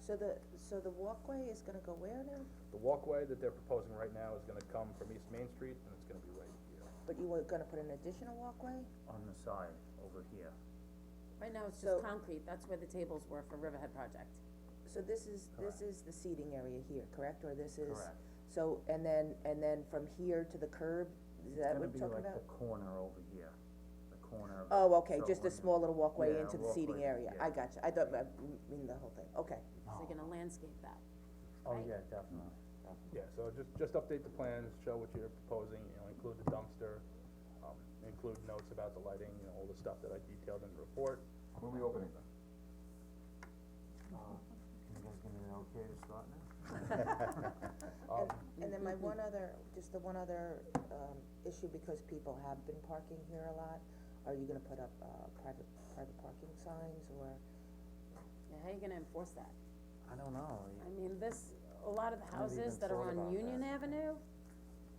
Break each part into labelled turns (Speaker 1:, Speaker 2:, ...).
Speaker 1: So the, so the walkway is gonna go where now?
Speaker 2: The walkway that they're proposing right now is gonna come from East Main Street, and it's gonna be right here.
Speaker 1: But you were gonna put an additional walkway?
Speaker 3: on the side over here.
Speaker 4: Right now, it's
Speaker 1: So-
Speaker 4: just concrete, that's where the tables were for Riverhead Project.
Speaker 1: So this is, this is the seating area here, correct, or this is?
Speaker 3: Correct.
Speaker 1: So, and then, and then from here to the curb, is that what you're talking
Speaker 3: It's gonna be like
Speaker 1: about?
Speaker 3: the corner over here, the corner of.
Speaker 1: Oh, okay,
Speaker 3: so
Speaker 1: just a
Speaker 3: when-
Speaker 1: small little walkway
Speaker 3: Yeah,
Speaker 1: into the seating
Speaker 3: walkway,
Speaker 1: area,
Speaker 3: yeah.
Speaker 1: I gotcha, I thought, I mean the whole thing, okay.
Speaker 4: So you're gonna landscape that.
Speaker 3: Oh,
Speaker 4: right?
Speaker 3: yeah, definitely.
Speaker 2: Yeah, so just, just update the plans, show what you're proposing, you know, include the dumpster, um, include notes about the lighting, you know, all the stuff that I detailed in the report.
Speaker 5: When are we opening them?
Speaker 3: Can you guys give me an okay to start now? Um,
Speaker 1: And, and then my one other, just the one other, um, issue, because people have been parking here a lot, are you gonna put up, uh, private, private parking signs, or?
Speaker 4: Yeah, how are you gonna enforce that?
Speaker 3: I don't know,
Speaker 4: I mean, this, a lot of the
Speaker 3: I
Speaker 4: houses
Speaker 3: haven't even
Speaker 4: that are
Speaker 3: thought about
Speaker 4: on Union
Speaker 3: that.
Speaker 4: Avenue,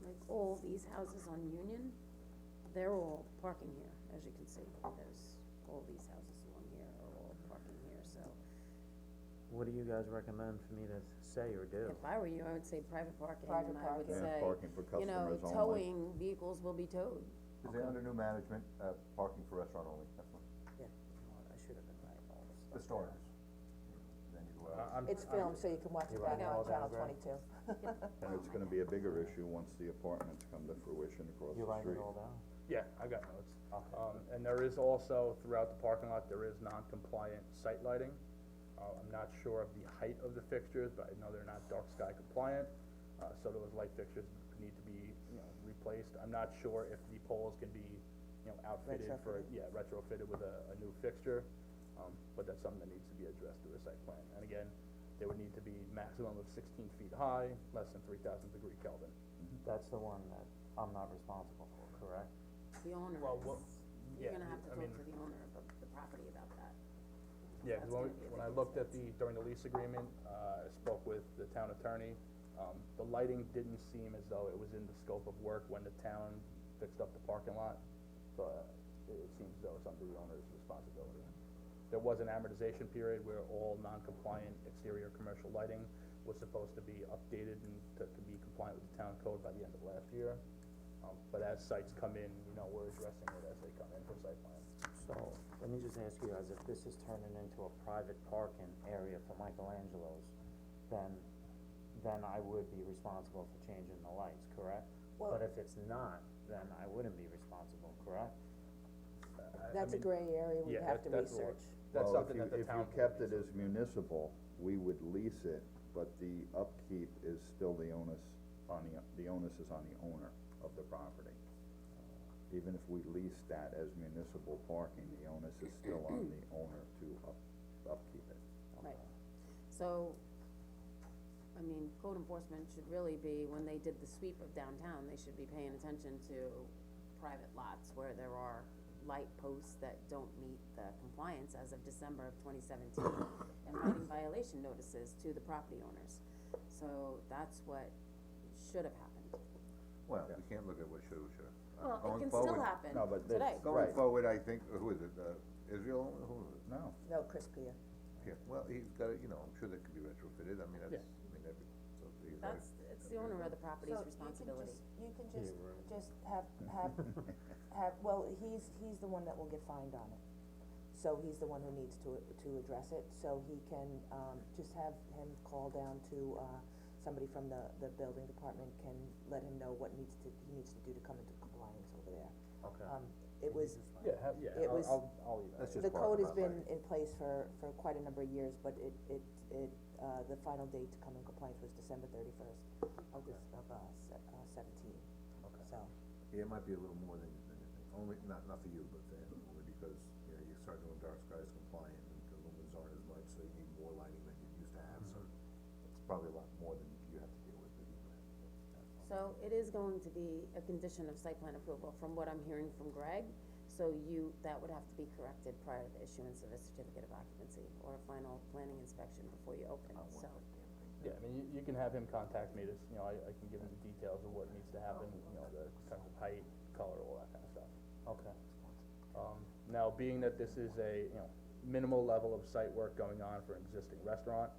Speaker 4: like all these houses on Union, they're all parking here, as you can see. There's, all these houses along here are all parking here, so
Speaker 3: what do you guys recommend for me to say or do?
Speaker 4: if I were you, I would say private parking,
Speaker 1: Private
Speaker 4: and I would
Speaker 1: parking.
Speaker 5: Yeah,
Speaker 4: say,
Speaker 5: parking for
Speaker 4: you know,
Speaker 5: customers only.
Speaker 4: towing vehicles will be towed.
Speaker 5: Is it under new management, uh, parking for restaurant only, that's one,
Speaker 3: I should have been writing all this stuff
Speaker 5: the
Speaker 3: down.
Speaker 5: stores. Then you go
Speaker 2: Uh,
Speaker 5: out,
Speaker 2: I'm-
Speaker 1: It's filmed, so you can watch it
Speaker 3: You're
Speaker 1: back
Speaker 3: writing
Speaker 1: on
Speaker 3: all that
Speaker 1: channel
Speaker 3: down.
Speaker 1: twenty-two.
Speaker 5: Uh, and it's gonna be a bigger issue once the apartments come to fruition across
Speaker 3: You
Speaker 5: the
Speaker 3: write it
Speaker 5: street.
Speaker 3: all down?
Speaker 2: Yeah, I got notes. Um, and there is also, throughout the parking lot, there is non-compliant site lighting. Uh, I'm not sure of the height of the fixtures, but I know they're not dark sky compliant, uh, so those light fixtures need to be, you know, replaced. I'm not sure if the poles can be, you know, outfitted for,
Speaker 1: Retrofitted.
Speaker 2: yeah, retrofitted with a, a new fixture. Um, but that's something that needs to be addressed through a site plan. And again, they would need to be maximum of sixteen feet high, less than three thousand degree Kelvin.
Speaker 3: That's the one that I'm not responsible for, correct?
Speaker 4: The owner
Speaker 2: Well,
Speaker 4: is-
Speaker 2: what-
Speaker 4: you're
Speaker 2: yeah,
Speaker 4: gonna have to
Speaker 2: I
Speaker 4: talk
Speaker 2: mean-
Speaker 4: to the owner of the- the property about that.
Speaker 2: Yeah, 'cause when,
Speaker 4: That's gonna
Speaker 2: we-
Speaker 4: be a
Speaker 2: when I
Speaker 4: big
Speaker 2: looked at the, during the lease agreement, uh, I spoke with the town attorney, um, the lighting didn't seem as though it was in the scope of work when the town fixed up the parking lot, so uh, it it seems as though it's under the owner's responsibility. There was an amortization period where all non-compliant exterior commercial lighting was supposed to be updated and to to be compliant with the town code by the end of last year. Um, but as sites come in, you know, we're addressing it as they come in for site plans.
Speaker 3: So, let me just ask you guys, if this is turning into a private parking area for Michelangelo's, then, then I would be responsible for changing the lights, correct?
Speaker 1: Well-
Speaker 3: But if it's not, then I wouldn't be responsible, correct?
Speaker 2: I- I
Speaker 1: That's a
Speaker 2: mean,
Speaker 1: gray area we'd
Speaker 2: yeah,
Speaker 1: have
Speaker 2: that-
Speaker 1: to
Speaker 2: that's what-
Speaker 1: research.
Speaker 2: That's
Speaker 5: Well,
Speaker 2: something that the town.
Speaker 5: If you, if you kept it as municipal, we would lease it, but the upkeep is still the onus on the, the onus is on the owner of the property. Even if we lease that as municipal parking, the onus is still on the owner to up, upkeep it.
Speaker 4: Right, so, I mean, code enforcement should really be, when they did the sweep of downtown, they should be paying attention to private lots where there are light posts that don't meet the compliance as of December of twenty seventeen, and writing violation notices to the property owners. So that's what should have happened.
Speaker 6: Well, we can't look at what should, or should.
Speaker 4: Well, it
Speaker 6: Going
Speaker 4: can still
Speaker 6: forward-
Speaker 4: happen
Speaker 5: No, but
Speaker 4: today.
Speaker 5: that's-
Speaker 6: Going
Speaker 5: Right.
Speaker 6: forward, I think, who is it, uh, Israel, who is it?
Speaker 5: No,
Speaker 1: No, Chris Pia.
Speaker 6: Yeah, well, he's got, it, you know, I'm sure that could be retrofitted, I mean, that's, I mean, every, so he's like-
Speaker 4: That's, it's the owner of the property's responsibility.
Speaker 1: You can just, just have, have, have, well, he's, he's the one that will get fined on it. So he's the one who needs to, to address it, so he can, um, just have him call down to, uh, somebody from the, the building department can let him know what needs to, he needs to do to come into compliance over there.
Speaker 3: Okay.
Speaker 1: Um, it was,
Speaker 2: Yeah, ha- yeah,
Speaker 1: It
Speaker 2: I'll,
Speaker 1: was-
Speaker 2: I'll, I'll leave that.
Speaker 6: that's just
Speaker 1: the
Speaker 6: part
Speaker 1: code
Speaker 6: of
Speaker 1: has
Speaker 6: our
Speaker 1: been
Speaker 6: life.
Speaker 1: in place for, for quite a number of years, but it, it, it, uh, the final date to come in compliance was December thirty-first of this, of, uh, se- uh, seventeen, so.
Speaker 6: Yeah, it might be a little more than, than you think, only, not, not for you, but for him, only because, you know, you start doing dark skies compliant, and the lumens aren't as much, so you need more lighting than you used to have, so it's probably a lot more than you have to deal with, than you would have.
Speaker 4: So it is going to be a condition of site plan approval, from what I'm hearing from Greg, so you, that would have to be corrected prior to the issuance of a certificate of occupancy or a final planning inspection before you open, so.
Speaker 2: Yeah, I mean, you, you can have him contact me, just, you know, I, I can give him the details of what needs to happen, you know, the in terms of height, color, all that kinda stuff.
Speaker 3: Okay,
Speaker 2: Um, now, being that this is a, you know, minimal level of site work going on for an existing restaurant,